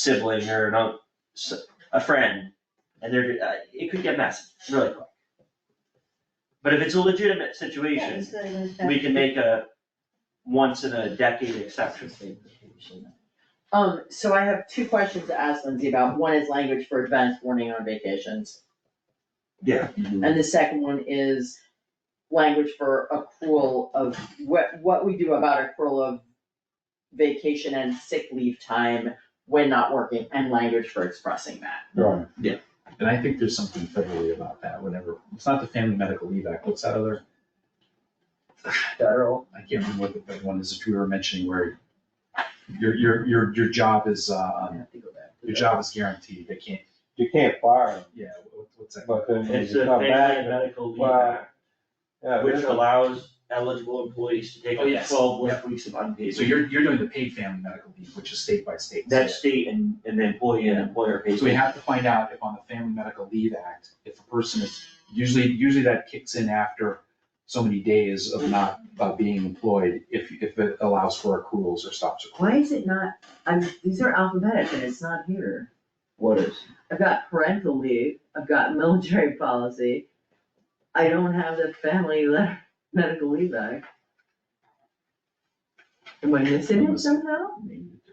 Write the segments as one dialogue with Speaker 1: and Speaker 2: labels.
Speaker 1: sibling or an unc, s- a friend, and they're, uh, it could get messy really quick. But if it's a legitimate situation, we can make a once in a decade exception.
Speaker 2: Um, so I have two questions to ask Lindsay about. One is language for advance warning on vacations.
Speaker 1: Yeah.
Speaker 2: And the second one is language for accrual of, what, what we do about accrual of vacation and sick leave time when not working, and language for expressing that.
Speaker 3: Right.
Speaker 1: Yeah.
Speaker 3: And I think there's something federally about that, whenever, it's not the Family Medical Leave Act, what's that other? Federal, I can't remember what the big one is that we were mentioning where your, your, your, your job is,
Speaker 2: I
Speaker 3: uh,
Speaker 2: have to go back.
Speaker 3: your job is guaranteed, they can't,
Speaker 4: You can't fire them,
Speaker 3: yeah, what- what's that?
Speaker 4: but then when
Speaker 1: It's
Speaker 4: you
Speaker 1: a
Speaker 4: come
Speaker 1: family
Speaker 4: back.
Speaker 1: medical leave
Speaker 4: Well,
Speaker 1: act,
Speaker 4: yeah,
Speaker 1: which
Speaker 4: there's a-
Speaker 1: allows eligible employees to take
Speaker 3: Oh,
Speaker 1: up to
Speaker 3: yes.
Speaker 1: twelve
Speaker 3: Yep.
Speaker 1: weeks of unpaid.
Speaker 3: So you're, you're doing the paid family medical leave, which is state by state.
Speaker 1: That state and, and the employee and employer pays.
Speaker 3: So we have to find out if on the Family Medical Leave Act, if a person is, usually, usually that kicks in after so many days of not, uh being employed, if, if it allows for accruals or stops accruing.
Speaker 2: Why is it not, I'm, these are alphabetic and it's not here.
Speaker 1: What is?
Speaker 2: I've got parental leave, I've got military policy. I don't have the family le- medical leave act. Am I missing it somehow?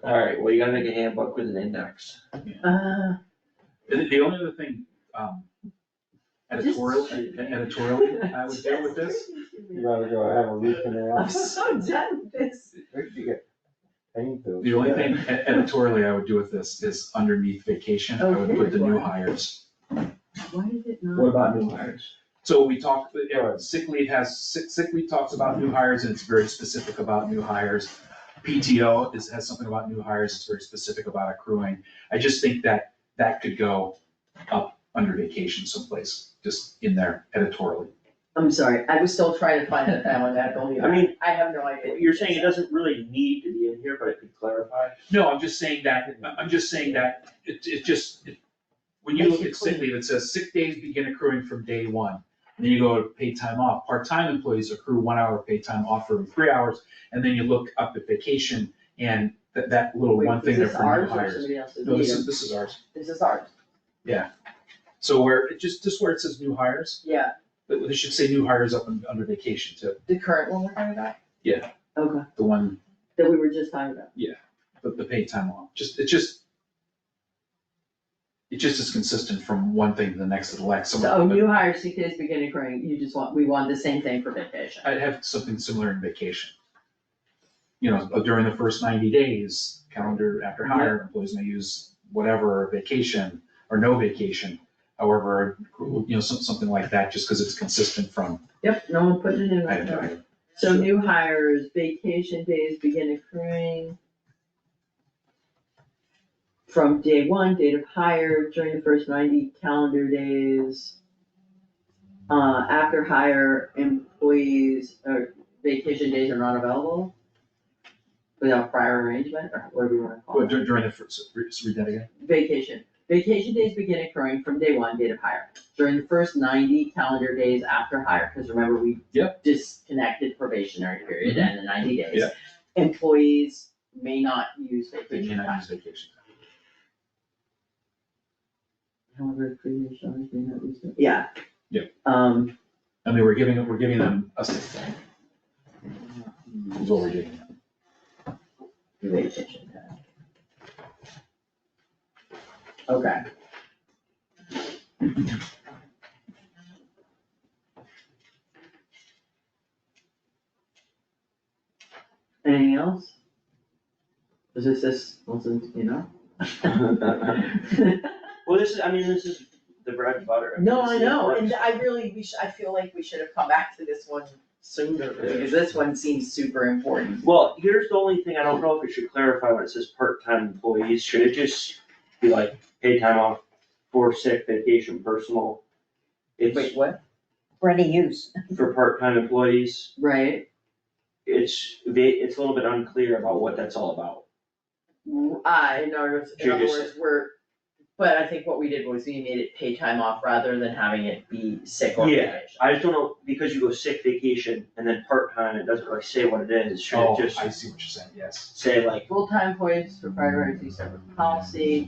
Speaker 1: Alright, well, you gotta make a handbook with an index.
Speaker 2: Uh,
Speaker 3: The, the only other thing, um, editorial, editorial, I would deal with this.
Speaker 4: You gotta go have a
Speaker 2: I'm
Speaker 4: recanal.
Speaker 2: so done with this.
Speaker 4: You get painful.
Speaker 3: The only thing e- editorially I would do with this is underneath vacation, I would put the new hires.
Speaker 2: Why did it
Speaker 1: What
Speaker 2: not?
Speaker 1: about new hires?
Speaker 3: So we talked, yeah,
Speaker 4: Right.
Speaker 3: sick leave has, sick, sick leave talks about new hires and it's very specific about new hires. PTO is, has something about new hires, it's very specific about accruing. I just think that that could go up under vacation someplace, just in there editorially.
Speaker 2: I'm sorry, I was still trying to find the family medical leave.
Speaker 1: I mean,
Speaker 2: I have no idea.
Speaker 1: you're saying it doesn't really need to be in here, but it could clarify.
Speaker 3: No, I'm just saying that, I'm just saying that, it, it just, it- when you look at sick leave, it says sick days begin accruing from day one. And then you go to paid time off. Part-time employees accrue one hour of paid time off for three hours, and then you look up at vacation and that, that little one thing there for new
Speaker 2: Is this ours or
Speaker 3: hires.
Speaker 2: somebody else's?
Speaker 3: No, this is, this is ours.
Speaker 2: This is ours,
Speaker 3: So where, it just, just where it says new hires,
Speaker 2: yeah,
Speaker 3: but they should say new hires up un- under vacation too,
Speaker 2: the current one we're talking about?
Speaker 3: Yeah.
Speaker 2: Okay,
Speaker 3: the one,
Speaker 2: that we were just talking about.
Speaker 3: the, the paid time off. Just, it just, it just is consistent from one thing to the next to the next. Someone-
Speaker 2: So new hire sick days begin accruing, you just want, we want the same thing for vacation.
Speaker 3: I'd have something similar in vacation. You know, during the first ninety days, calendar after hire, employees may use whatever vacation or no vacation. However, you know, some, something like that, just because it's consistent from
Speaker 2: Yep, no one putting it in
Speaker 3: item
Speaker 2: right
Speaker 3: to
Speaker 2: now.
Speaker 3: item.
Speaker 2: So new hires, vacation days begin accruing from day one, date of hire, during the first ninety calendar days. Uh, after hire, employees, or vacation days are not available without prior arrangement, or whatever you wanna call
Speaker 3: But
Speaker 2: it.
Speaker 3: dur- during the first, re- just read that again.
Speaker 2: Vacation, vacation days begin accruing from day one, date of hire, during the first ninety calendar days after hire, cause remember, we disconnected probationary period
Speaker 3: Mm-hmm.
Speaker 2: and the ninety days.
Speaker 3: Yeah.
Speaker 2: Employees may not use
Speaker 3: They
Speaker 2: vacation
Speaker 3: cannot
Speaker 2: time.
Speaker 3: use vacation.
Speaker 2: However, previous owners may not use it. Yeah.
Speaker 3: Yeah.
Speaker 2: Um,
Speaker 3: I mean, we're giving, we're giving them a sick day. Is what we're doing.
Speaker 2: vacation time. Okay. Anything else? Is this this, wasn't, you know?
Speaker 1: Well, this is, I mean, this is the bread and butter.
Speaker 2: No,
Speaker 1: This
Speaker 2: I
Speaker 1: is what
Speaker 2: know, and
Speaker 1: works.
Speaker 2: I really, we should, I feel like we should have come back to this one sooner, because this one seems super important.
Speaker 1: Well, here's the only thing, I don't know if it should clarify when it says part-time employees, should it just be like paid time off for sick, vacation, personal? It's
Speaker 2: Wait, what?
Speaker 5: For any use.
Speaker 1: for part-time employees,
Speaker 2: Right,
Speaker 1: it's, va- it's a little bit unclear about what that's all about.
Speaker 2: I, in other words, in other
Speaker 1: Should you
Speaker 2: words, we're But I think what we did was we made it pay time off rather than having it be sick or
Speaker 1: Yeah.
Speaker 2: vacation.
Speaker 1: I just don't know, because you go sick vacation and then part-time, it doesn't really say what it is, should
Speaker 3: Oh,
Speaker 1: it just
Speaker 3: I see what you're saying, yes.
Speaker 1: say like
Speaker 2: Full-time employees for priority separate policy.